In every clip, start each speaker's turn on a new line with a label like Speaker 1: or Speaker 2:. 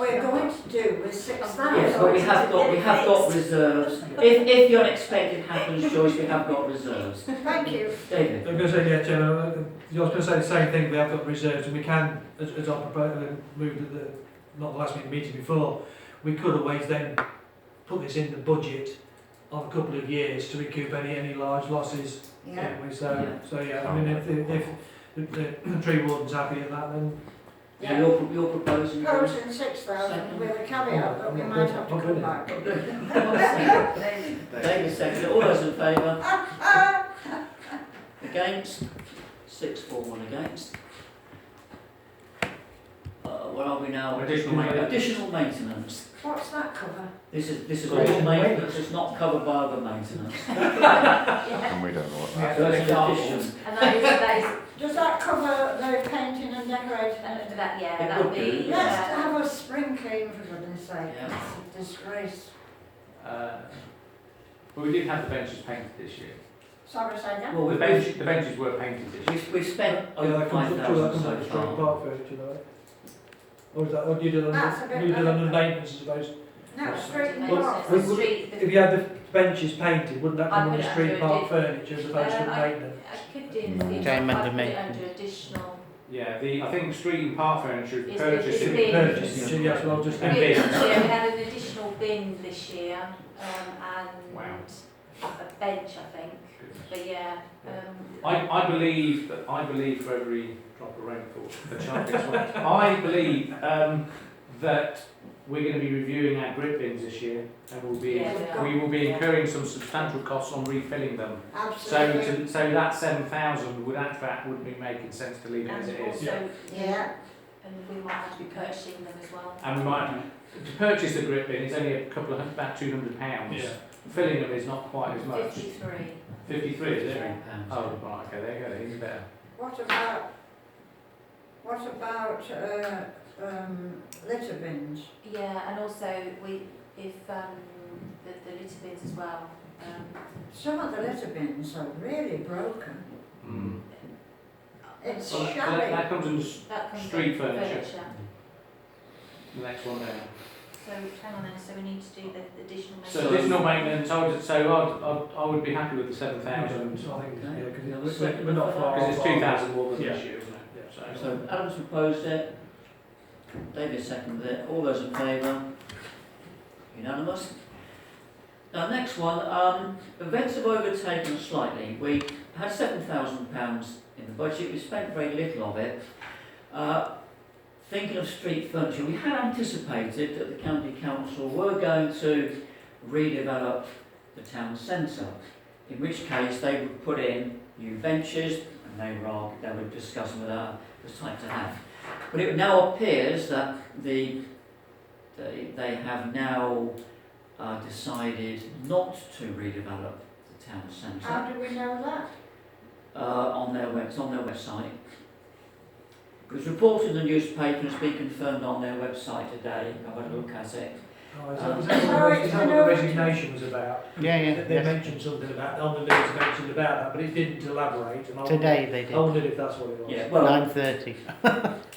Speaker 1: Oh, We're going to do with six thousand.
Speaker 2: Yes, but we have got, we have got reserves. If, if the unexpected happens, Joyce, we have got reserves.
Speaker 1: Thank you.
Speaker 2: David?
Speaker 3: I'm going to say, yeah, Chair, I I was going to say the same thing, we have got reserves and we can, as, as I proposed, uh, moved at the, not the last meeting, meeting before, we could always then put this in the budget on a couple of years to recoup any, any large losses.
Speaker 1: Yeah.
Speaker 3: can't we? So, so yeah, I mean, if, the- if, if the tree warden's happy at that, then
Speaker 2: Yeah, you're, you're proposing. Joyce?
Speaker 1: Proposing six thousand with a caveat that we might have
Speaker 2: Oh,
Speaker 1: to come back.
Speaker 2: David seconded, all those in favour? Against? Six, four, one against. Uh, where are we now? Additional maintenance. Additional maintenance.
Speaker 1: What's that cover?
Speaker 2: This is, this is all maintenance, it's not covered by other maintenance.
Speaker 4: And we don't know what
Speaker 2: So it's an addition.
Speaker 5: And that is, that is,
Speaker 1: Does that cover the painting and decorating? Uh,
Speaker 5: and that, yeah, that would be,
Speaker 1: Let's
Speaker 5: yeah.
Speaker 1: have a spring clean for goodness sake.
Speaker 2: Yeah.
Speaker 1: It's a disgrace.
Speaker 6: Uh, But we did have the benches painted this year.
Speaker 1: Sorry, say again.
Speaker 2: Well,
Speaker 6: The
Speaker 2: we've,
Speaker 6: benches,
Speaker 2: we've,
Speaker 6: the benches were painted this year.
Speaker 2: we've- we've spent
Speaker 3: Yeah,
Speaker 2: over
Speaker 3: that
Speaker 2: five
Speaker 3: comes up to that
Speaker 2: thousand
Speaker 3: comes up
Speaker 2: so
Speaker 3: to straight
Speaker 2: far.
Speaker 3: park furniture, right? Or is that, or do you do
Speaker 1: That's a
Speaker 3: that,
Speaker 1: bit
Speaker 3: you do that
Speaker 1: better.
Speaker 3: under maintenance, I suppose?
Speaker 1: No, straight in the
Speaker 3: Well,
Speaker 1: park.
Speaker 3: we-
Speaker 5: The
Speaker 3: we-
Speaker 5: street, the-
Speaker 3: If you had the benches painted, wouldn't that
Speaker 5: I
Speaker 3: come
Speaker 5: put
Speaker 3: under
Speaker 5: it
Speaker 3: street
Speaker 5: under a
Speaker 3: park
Speaker 5: di-
Speaker 3: furniture as opposed to
Speaker 5: Uh, I-
Speaker 3: maintenance?
Speaker 5: I could do
Speaker 4: Mm.
Speaker 5: the, I
Speaker 7: Time and
Speaker 5: could put it
Speaker 7: make-
Speaker 5: under additional,
Speaker 6: Yeah, the, I think street and park furniture is
Speaker 5: It's- it's
Speaker 6: purchased in
Speaker 5: been-
Speaker 3: Purchase, yes, well, just.
Speaker 6: And
Speaker 5: yeah,
Speaker 6: bin.
Speaker 5: we had an additional bin this year, um,
Speaker 6: Wow.
Speaker 5: and a bench, I think, but yeah, um.
Speaker 6: I, I believe that I believe for every drop of rainfall, a chance is wet. I believe um, that we're going to be reviewing our grit bins this year, and we'll be
Speaker 5: Yeah, we are.
Speaker 6: we will be incurring some substantial costs on refilling them. So
Speaker 1: Absolutely.
Speaker 6: to, so that seven thousand would in fact wouldn't be making sense to leave it as it
Speaker 5: And
Speaker 6: is.
Speaker 5: also,
Speaker 1: Yeah.
Speaker 5: and we might have to be purchasing them as well.
Speaker 6: And we might, to purchase the grip bin, it's only a couple of, hun- about two hundred pounds.
Speaker 3: Yeah.
Speaker 6: Filling them is not quite as much.
Speaker 5: Fifty-three.
Speaker 6: Fifty-three, is it?
Speaker 2: Pounds.
Speaker 6: Oh, right, okay, there you go, then, even better.
Speaker 1: What about, what about, uh, um, litter bins?
Speaker 5: Yeah, and also we, if, um, the, the litter bins as well, um.
Speaker 1: Some of the litter bins are really broken.
Speaker 6: Mm.
Speaker 1: It's
Speaker 6: Well, that- that,
Speaker 1: shabby.
Speaker 6: that comes in the s-
Speaker 5: That comes
Speaker 6: uh, Street
Speaker 5: under
Speaker 6: furniture. the next one there.
Speaker 5: So hang on then, so we need to do the additional.
Speaker 6: So additional maintenance, I would, so I'd, I'd, I would be happy with the seven thousand,
Speaker 3: So I think, yeah, because
Speaker 2: Okay.
Speaker 3: we're, we're not far.
Speaker 6: because it's two thousand more than this
Speaker 3: Yeah.
Speaker 6: year, isn't it?
Speaker 2: So Adam's proposed it, David seconded it, all those in favour? Unanimous? Now, next one, um, events have overtaken us slightly. We had seven thousand pounds in the budget, we spent very little of it. Uh, thinking of street furniture, we had anticipated that the county council were going to redevelop the town centre, in which case they would put in new benches, and they were, arg- they were discussing whether that was type to have. But it now appears that the, they, they have now uh, decided not to redevelop the town centre
Speaker 1: How do we know that?
Speaker 2: uh, on their web, on their website. It was reported in the newspaper and it's been confirmed on their website today. I've had a look at it.
Speaker 3: Oh, is
Speaker 6: Um,
Speaker 3: that, is that what the- is that what the resignation was about?
Speaker 7: Yeah,
Speaker 3: They
Speaker 7: yeah,
Speaker 3: they
Speaker 7: yes.
Speaker 3: mentioned something about, on the news mentioned about that, but it didn't elaborate, and I wondered,
Speaker 7: Today they
Speaker 3: I
Speaker 7: did.
Speaker 3: wondered if that's what it was.
Speaker 2: Yeah, well,
Speaker 7: Nine thirty.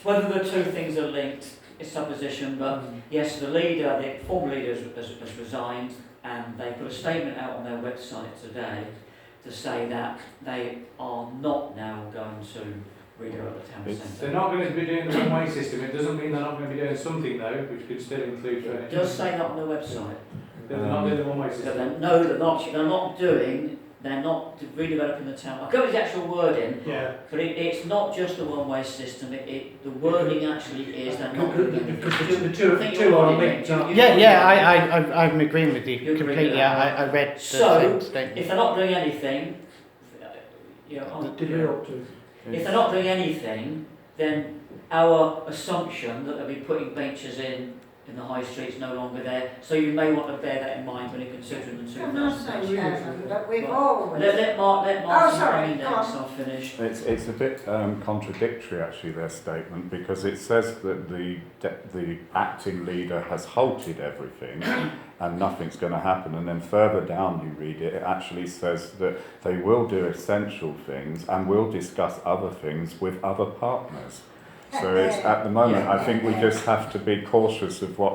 Speaker 2: whether the two things are linked is supposition, but yes, the leader, the former leader has, has, has resigned and they put a statement out on their website today to say that they are not now going to redevelop the town
Speaker 4: It's-
Speaker 6: They're
Speaker 2: centre.
Speaker 6: not going to be doing the one-way system, it doesn't mean they're not going to be doing something though, which could still include
Speaker 2: It
Speaker 6: furniture.
Speaker 2: does say that on their website.
Speaker 6: They're not doing the one-way
Speaker 2: So
Speaker 6: system.
Speaker 2: they no, they're not. They're not doing. They're not redeveloping the town. I go with the actual wording,
Speaker 3: Yeah.
Speaker 2: but it, it's not just a one-way system. It, it the wording actually is they're not.
Speaker 3: Because
Speaker 2: doing it.
Speaker 3: the two, the
Speaker 2: I
Speaker 3: two,
Speaker 2: think
Speaker 3: two
Speaker 2: you're
Speaker 3: are
Speaker 2: right,
Speaker 3: linked
Speaker 2: you-
Speaker 3: up.
Speaker 2: you-
Speaker 7: Yeah, yeah, I, I, I'm- I'm agreeing with
Speaker 2: You're
Speaker 7: you
Speaker 2: agreeing with
Speaker 7: completely.
Speaker 2: that.
Speaker 7: I, I I read the
Speaker 2: So,
Speaker 7: same
Speaker 2: If
Speaker 7: statement.
Speaker 2: they're not doing anything, uh, you know, on-
Speaker 3: Did we ought to?
Speaker 2: if they're not doing anything, then our assumption that they'll be putting benches in in the high street is no longer there. So you may want to bear that in mind when you're considering the two
Speaker 1: Can I
Speaker 2: thousand.
Speaker 1: say, Chairman, that we've
Speaker 2: Right.
Speaker 1: always,
Speaker 2: Let, let Mark, let Mark,
Speaker 1: Oh, Oh, sorry,
Speaker 2: come in
Speaker 1: go
Speaker 2: next,
Speaker 1: on.
Speaker 2: I'll finish.
Speaker 4: It's, it's a bit um, contradictory, actually, their statement, because it says that the, de- the acting leader has halted everything and nothing's going to happen. And then further down you read it, it actually says that they will do essential things and will discuss other things with other partners. So it's, at the moment, I think we just have to be cautious of what